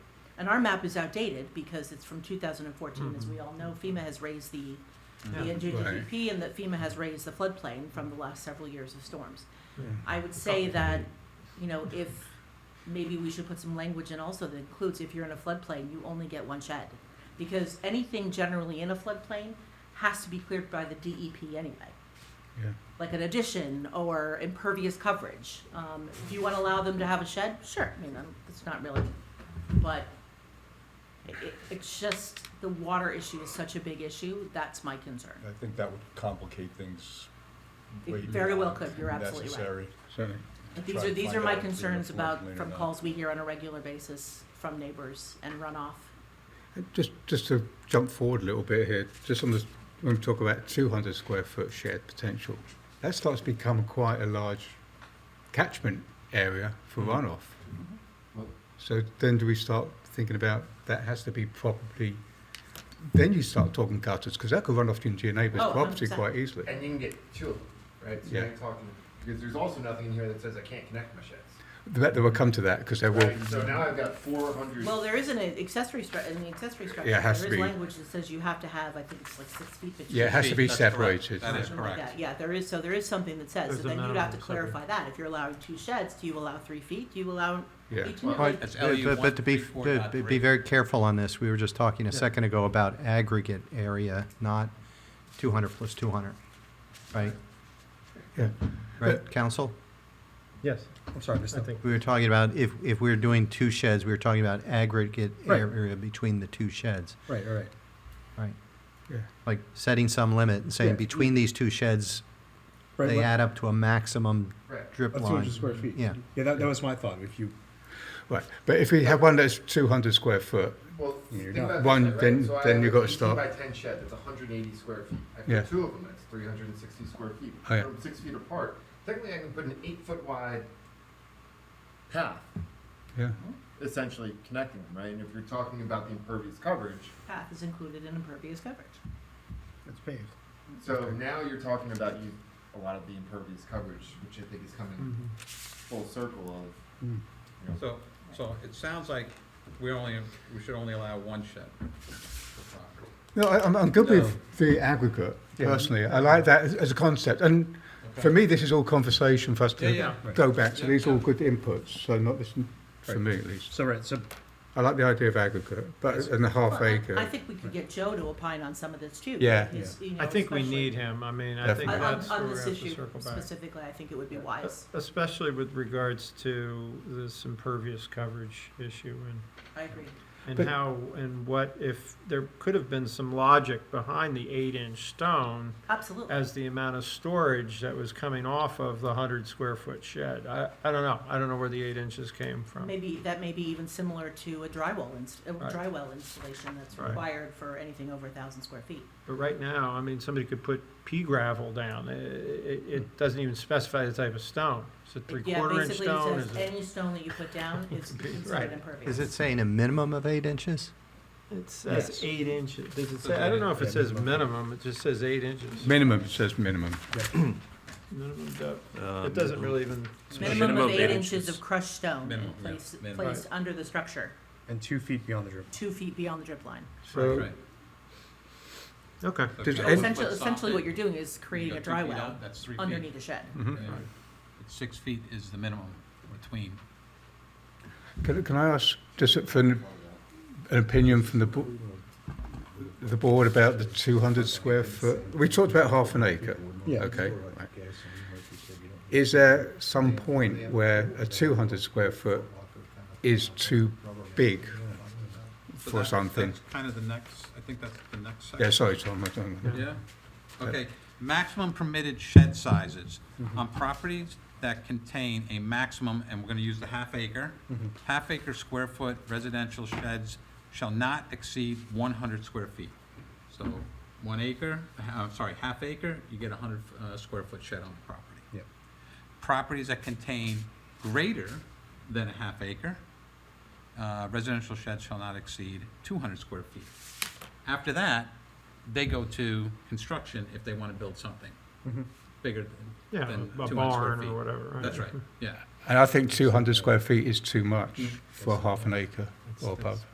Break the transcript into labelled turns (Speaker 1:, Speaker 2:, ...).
Speaker 1: and our map is outdated because it's from 2014. As we all know, FEMA has raised the the
Speaker 2: Mm-hmm. Yeah.
Speaker 1: NJDGP and that FEMA has raised the floodplain from the last several years of storms.
Speaker 2: Yeah.
Speaker 1: I would say that, you know, if, maybe we should put some language in also that includes if you're in a floodplain, you only get one shed. Because anything generally in a floodplain has to be cleared by the DEP anyway.
Speaker 2: Yeah.
Speaker 1: Like an addition or impervious coverage. Um, do you wanna allow them to have a shed? Sure, I mean, um, it's not really, but it, it- it's just, the water issue is such a big issue, that's my concern.
Speaker 3: I think that would complicate things
Speaker 1: It
Speaker 3: way
Speaker 1: very well
Speaker 3: beyond
Speaker 1: could. You're absolutely right.
Speaker 3: necessary.
Speaker 2: Certainly.
Speaker 1: But These
Speaker 3: try
Speaker 1: are,
Speaker 3: to
Speaker 1: these
Speaker 3: find
Speaker 1: are my
Speaker 3: out if there's a
Speaker 1: concerns about,
Speaker 3: floodplain or
Speaker 1: from
Speaker 3: not.
Speaker 1: calls we hear on a regular basis from neighbors and runoff.
Speaker 2: Just, just to jump forward a little bit here, just on this, when we talk about 200 square foot shed potential, that starts to become quite a large catchment area for runoff.
Speaker 4: Well-
Speaker 2: So then do we start thinking about that has to be properly, then you start talking gutters, because that could run off into your neighbour's
Speaker 1: Oh,
Speaker 2: property
Speaker 1: 100%.
Speaker 2: quite easily.
Speaker 4: And you can get two of them, right? So
Speaker 2: Yeah.
Speaker 4: you're talking, because there's also nothing in here that says I can't connect my sheds.
Speaker 2: That, that will come to that, because there will,
Speaker 4: Right, so now I've got four hundred.
Speaker 1: Well, there is an accessory stru, in the accessory structure,
Speaker 2: Yeah, it has
Speaker 1: there
Speaker 2: to
Speaker 1: is
Speaker 2: be.
Speaker 1: language that says you have to have, I think it's like six feet between.
Speaker 2: yeah, it has to be
Speaker 5: That's correct.
Speaker 2: separated.
Speaker 5: That is
Speaker 1: Something like
Speaker 5: correct.
Speaker 1: that. Yeah, there is, so there is something that says,
Speaker 6: There's
Speaker 1: so
Speaker 6: a
Speaker 1: then you'd have to
Speaker 6: minimum, something.
Speaker 1: clarify that. If you're allowing two sheds, do you allow three feet? Do you allow
Speaker 2: Yeah.
Speaker 1: each?
Speaker 4: Well,
Speaker 1: like,
Speaker 5: That's
Speaker 6: But-
Speaker 5: LU
Speaker 6: But but to be, but be
Speaker 5: 134.3.
Speaker 6: very careful on this, we were just talking a
Speaker 5: Yeah.
Speaker 6: second ago about aggregate area, not 200 plus 200, right?
Speaker 2: Yeah.
Speaker 6: Right, council?
Speaker 7: Yes, I'm sorry, Mr.
Speaker 6: We were talking about, if, if we we're doing two sheds, we were talking about aggregate
Speaker 7: Right.
Speaker 6: area between the two sheds,
Speaker 7: Right, all right.
Speaker 6: right?
Speaker 2: Yeah.
Speaker 6: Like setting some limit and saying
Speaker 7: Yeah.
Speaker 6: between these two sheds,
Speaker 7: Right,
Speaker 6: they
Speaker 7: like-
Speaker 6: add up to a maximum
Speaker 4: Right.
Speaker 6: drip
Speaker 7: Of
Speaker 6: line.
Speaker 7: 200 square feet.
Speaker 6: Yeah.
Speaker 7: Yeah, that, that was my thought, if you,
Speaker 2: Right, but if we have one that's 200 square foot,
Speaker 4: Well,
Speaker 7: You're
Speaker 4: think
Speaker 7: not-
Speaker 4: about
Speaker 2: One,
Speaker 4: this, right?
Speaker 2: then-
Speaker 4: So I
Speaker 2: then
Speaker 4: have
Speaker 2: you
Speaker 4: an
Speaker 2: gotta
Speaker 4: 18
Speaker 2: stop.
Speaker 4: By ten shed, that's hundred and eighty square feet. I
Speaker 2: Yeah.
Speaker 4: put two of them, that's three hundred and sixty square feet.
Speaker 2: Oh, yeah.
Speaker 4: Put 'em Six feet apart. Technically, I can put an eight foot wide path,
Speaker 2: yeah.
Speaker 4: essentially connecting them, right? And if you're talking about the impervious coverage,
Speaker 1: Path is included in impervious coverage.
Speaker 7: it's paved.
Speaker 4: so now you're talking about you, a lot of the impervious coverage, which I think is coming full circle of
Speaker 5: So, so it sounds like we only, we should only allow one shed per property.
Speaker 2: No, I, I'm, I'm good with the aggregate
Speaker 7: Yeah.
Speaker 2: personally. I like that as, as a concept, and for me, this is all conversation for us to
Speaker 5: Yeah, yeah.
Speaker 2: go back. So
Speaker 5: Yeah,
Speaker 2: these are all
Speaker 5: yeah.
Speaker 2: good inputs. So not this for me at least.
Speaker 7: So, right, so,
Speaker 2: I like the idea of aggregate, but and a half
Speaker 1: Well, I-
Speaker 2: acre.
Speaker 1: I think we could get Joe to opine on some of this too.
Speaker 2: Oh, Yeah.
Speaker 1: He's- you know,
Speaker 6: I think we
Speaker 1: especially-
Speaker 6: need
Speaker 7: him, I mean,
Speaker 2: I think
Speaker 1: On,
Speaker 2: Definitely.
Speaker 1: on,
Speaker 7: that's
Speaker 1: on this issue specifically, I think it would be wise.
Speaker 7: Especially with regards to this impervious coverage issue and
Speaker 1: I agree.
Speaker 7: and
Speaker 2: But-
Speaker 7: how and what if there could have been some logic behind the eight inch stone
Speaker 1: Absolutely.
Speaker 7: as the amount of storage that was coming off of the hundred square foot shed. I, I don't know. I don't know where the eight inches came from.
Speaker 1: Maybe, that may be even similar to a drywall inst, a
Speaker 7: Right.
Speaker 1: dry well installation that's
Speaker 7: Right.
Speaker 1: required for anything over a thousand square feet.
Speaker 7: But right now, I mean, somebody could put pea gravel down. It, it, it doesn't even specify the type of stone. Is it three
Speaker 1: Yeah,
Speaker 7: quarter inch
Speaker 1: basically
Speaker 7: stone?
Speaker 1: it
Speaker 7: Is
Speaker 1: says
Speaker 7: it?
Speaker 1: any stone that you put down is
Speaker 7: Right.
Speaker 1: considered
Speaker 6: Is
Speaker 1: impervious.
Speaker 6: it saying a minimum of eight inches?
Speaker 7: It says
Speaker 2: Yes.
Speaker 7: eight inches. Does it say? I don't know if it says minimum. It just says eight inches.
Speaker 2: minimum it says minimum.
Speaker 7: minimum depth.
Speaker 5: Uh,
Speaker 7: it doesn't really even.
Speaker 1: Minimum
Speaker 5: Minimum
Speaker 1: of
Speaker 5: of
Speaker 1: eight
Speaker 5: eight
Speaker 1: inches of crushed stone
Speaker 5: Minimum, yeah,
Speaker 1: placed,
Speaker 5: minimum.
Speaker 1: placed under the structure,
Speaker 8: and two feet beyond the drip.
Speaker 1: two feet beyond the drip line.
Speaker 2: So
Speaker 5: Right.
Speaker 7: Okay.
Speaker 5: So if
Speaker 2: Does it-
Speaker 5: you have a
Speaker 1: Essentially,
Speaker 5: foot
Speaker 1: essentially what
Speaker 5: soffit,
Speaker 1: you're doing is
Speaker 5: you
Speaker 1: creating
Speaker 5: got
Speaker 1: a
Speaker 5: two
Speaker 1: dry
Speaker 5: feet
Speaker 1: well
Speaker 5: out, That's three feet.
Speaker 1: underneath a shed.
Speaker 2: mhm.
Speaker 5: Yeah. Six feet is the minimum between.
Speaker 2: can, can I ask just for an, an opinion from the bo- the board about the 200 square foot? We talked about half an acre.
Speaker 7: Yeah.
Speaker 2: Okay. right. Is there some point where a 200 square foot is too big
Speaker 5: So
Speaker 2: for
Speaker 5: that's-
Speaker 2: something?
Speaker 5: That's kind of the next, I think that's the next section.
Speaker 2: Yeah, sorry, Tom. I don't know.
Speaker 5: Yeah, okay, maximum permitted shed sizes on properties that contain a maximum, and we're gonna use the half acre, half acre square foot residential sheds shall not exceed one hundred square feet. So, one acre, uh, I'm sorry, half acre, you get a hundred, uh, square foot shed on the property.
Speaker 8: Yep.
Speaker 5: Properties that contain greater than a half acre, uh, residential sheds shall not exceed two hundred square feet. After that, they go to construction if they want to build something bigger than,
Speaker 7: Yeah,
Speaker 5: than
Speaker 7: a
Speaker 5: 200 square
Speaker 7: barn
Speaker 5: feet.
Speaker 7: or whatever. Right? Mm-hmm.
Speaker 5: That's right, yeah.
Speaker 2: And I think 200 square feet is too much for half an acre or above.